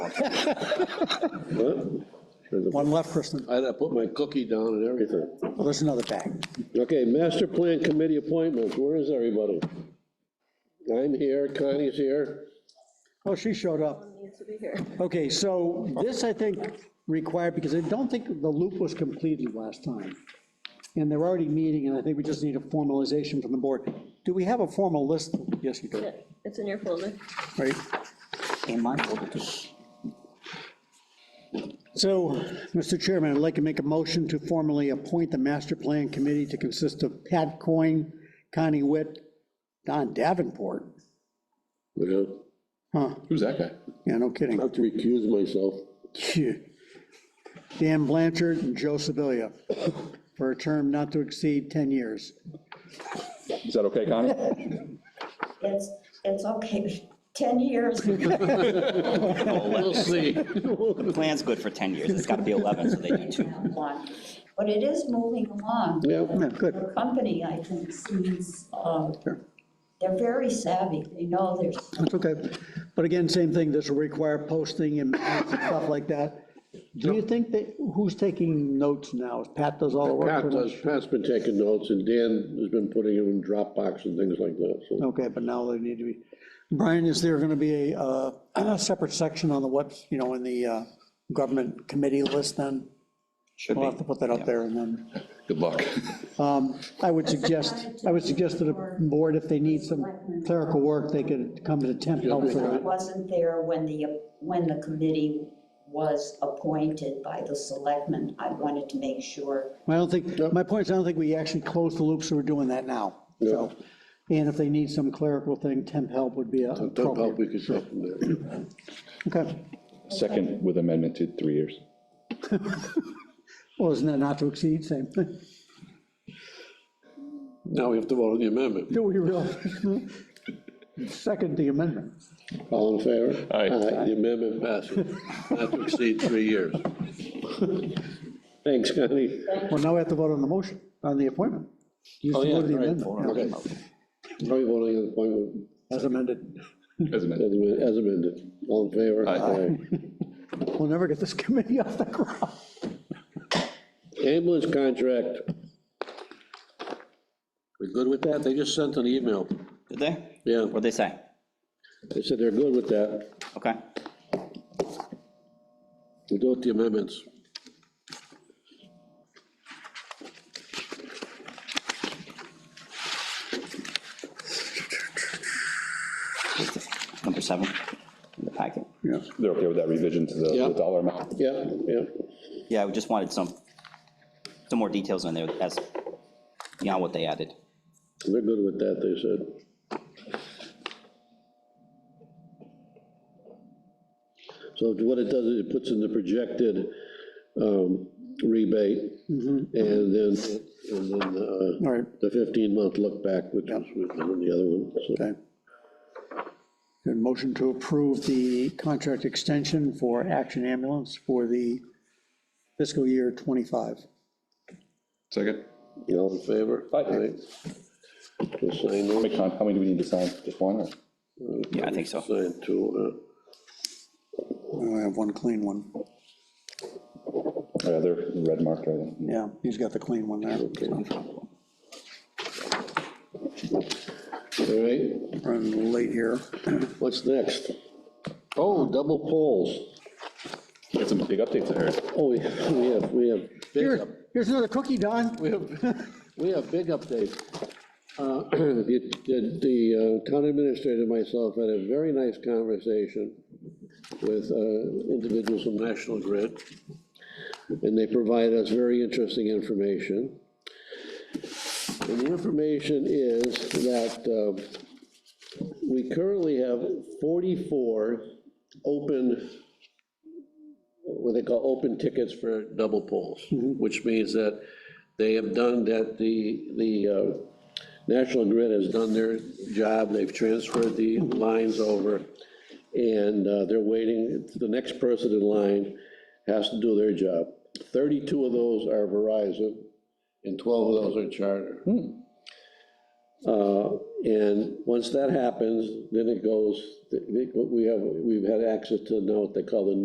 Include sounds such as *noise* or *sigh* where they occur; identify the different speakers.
Speaker 1: One left, Kristen.
Speaker 2: I had to put my cookie down and everything.
Speaker 1: Well, there's another bag.
Speaker 2: Okay, master plan committee appointments, where is everybody? I'm here, Connie's here.
Speaker 1: Oh, she showed up.
Speaker 3: Needs to be here.
Speaker 1: Okay, so this, I think, required, because I don't think the loop was completed last time. And they're already meeting, and I think we just need a formalization from the board. Do we have a formal list? Yes, you do,
Speaker 3: Yeah, It's in your folder.
Speaker 1: right?
Speaker 4: in my folder too.
Speaker 1: So, Mr. Chairman, I'd like to make a motion to formally appoint the master plan committee to consist of Pat Coyne, Connie Witt, Don Davenport.
Speaker 2: You know,
Speaker 1: Huh,
Speaker 5: Who's that guy?
Speaker 1: yeah, no kidding.
Speaker 2: I have to recuse myself.
Speaker 1: Phew. Dan Blanchard and Joe Sibilia for a term not to exceed 10 years.
Speaker 5: Is that okay, Connie?
Speaker 6: It's, it's okay, *laughs* 10 years.
Speaker 2: We'll see.
Speaker 4: The plan's good for 10 years, it's got to be 11, so they do two.
Speaker 1: *laughs*
Speaker 6: one, But it is moving along.
Speaker 2: Yeah,
Speaker 1: Yeah, Good.
Speaker 6: The company, I think, seems, uh, they're very savvy. They know there's,
Speaker 1: That's okay. But again, same thing, this will require posting and stuff like that. Do you think that, who's taking notes now? Is Pat does all the work?
Speaker 2: Pat
Speaker 1: pretty
Speaker 2: does,
Speaker 1: much?
Speaker 2: Pat's been taking notes, and Dan has been putting it in Dropbox and things like that, so.
Speaker 1: Okay, but now they need to be. Brian, is there going to be a, uh, *clears throat* a separate section on the webs, you know, in the uh, government committee list then?
Speaker 4: Should
Speaker 1: We'll have to
Speaker 4: be.
Speaker 1: put that up there and then, um,
Speaker 5: Good luck.
Speaker 1: I would suggest, I would suggest to the board, if they need some clerical work, they could come to temp help for
Speaker 6: I
Speaker 1: that.
Speaker 6: wasn't there when the, when the committee was appointed by the selectmen. I wanted to make sure.
Speaker 1: I don't think, my point is, I don't think we actually closed the loop, so we're doing that now. So, and if they need some clerical thing, temp help would be
Speaker 2: Don't help,
Speaker 1: appropriate.
Speaker 2: we could help them there.
Speaker 1: Okay.
Speaker 5: Second with amendment to three years.
Speaker 1: Well, isn't that not to exceed, same thing? *laughs*
Speaker 2: Now we have to vote on the amendment.
Speaker 1: Do we really? *laughs* Second the amendment.
Speaker 2: All in favor?
Speaker 5: Aye.
Speaker 2: The amendment passes, not to exceed three years. Thanks, Connie.
Speaker 1: Well, now we have to vote on the motion, on the appointment. You just
Speaker 2: Oh, yeah,
Speaker 1: voted the
Speaker 2: right.
Speaker 1: amendment,
Speaker 2: Okay. Now we voting on the appointment
Speaker 1: yeah, as amended.
Speaker 2: as
Speaker 5: As amended.
Speaker 2: amended- as amended. All in favor?
Speaker 5: Aye.
Speaker 1: We'll never get this *laughs* committee off the ground.
Speaker 2: Aye. Ambulance contract. We good with that? They just sent an email.
Speaker 4: Did they?
Speaker 2: Yeah.
Speaker 4: What'd they say?
Speaker 2: They said they're good with that.
Speaker 4: Okay.
Speaker 2: We'll go with the amendments.
Speaker 4: Number seven in the packet.
Speaker 5: They're okay with that revision to the
Speaker 2: Yeah.
Speaker 5: the dollar amount?
Speaker 2: Yeah, yeah.
Speaker 4: Yeah, we just wanted some, some more details in there as, beyond what they added.
Speaker 2: They're good with that, they said. So what it does is it puts in the projected um, rebate and then, and then uh,
Speaker 1: All right,
Speaker 2: the 15-month look back, which was with the other one. so.
Speaker 1: okay. And motion to approve the contract extension for Action Ambulance for the fiscal year 25.
Speaker 5: Second.
Speaker 2: All in favor?
Speaker 5: Aye.
Speaker 2: Aye. Just sign
Speaker 5: How
Speaker 2: those.
Speaker 5: many con- how many do we need to sign? Just one or?
Speaker 4: Yeah, I think so.
Speaker 2: Sign two. uh,
Speaker 1: Oh, I have one clean one.
Speaker 5: Yeah, they're red marked, right?
Speaker 1: Yeah, he's got the clean one there.
Speaker 2: uh, All right,
Speaker 1: Running late here.
Speaker 2: what's next? Oh, double polls.
Speaker 5: Got some big updates I heard.
Speaker 2: Oh, we we have, we have big up.
Speaker 1: Here, here's another cookie, Don.
Speaker 2: We have, we have big updates. Uh, *clears throat* The, the- the uh, town administrator and myself had a very nice conversation with uh, individuals from National Grid, and they provided us very interesting information. And the information is that um, we currently have 44 open what they call open tickets for double polls, which means that they have done, that the, the uh, National Grid has done their job, they've transferred the lines over, and uh, they're waiting, the next person in line has to do their job. Thirty-two of those are Verizon, and twelve of those are Charter. Uh, And once that happens, then it goes, we have, we've had access to now what they call the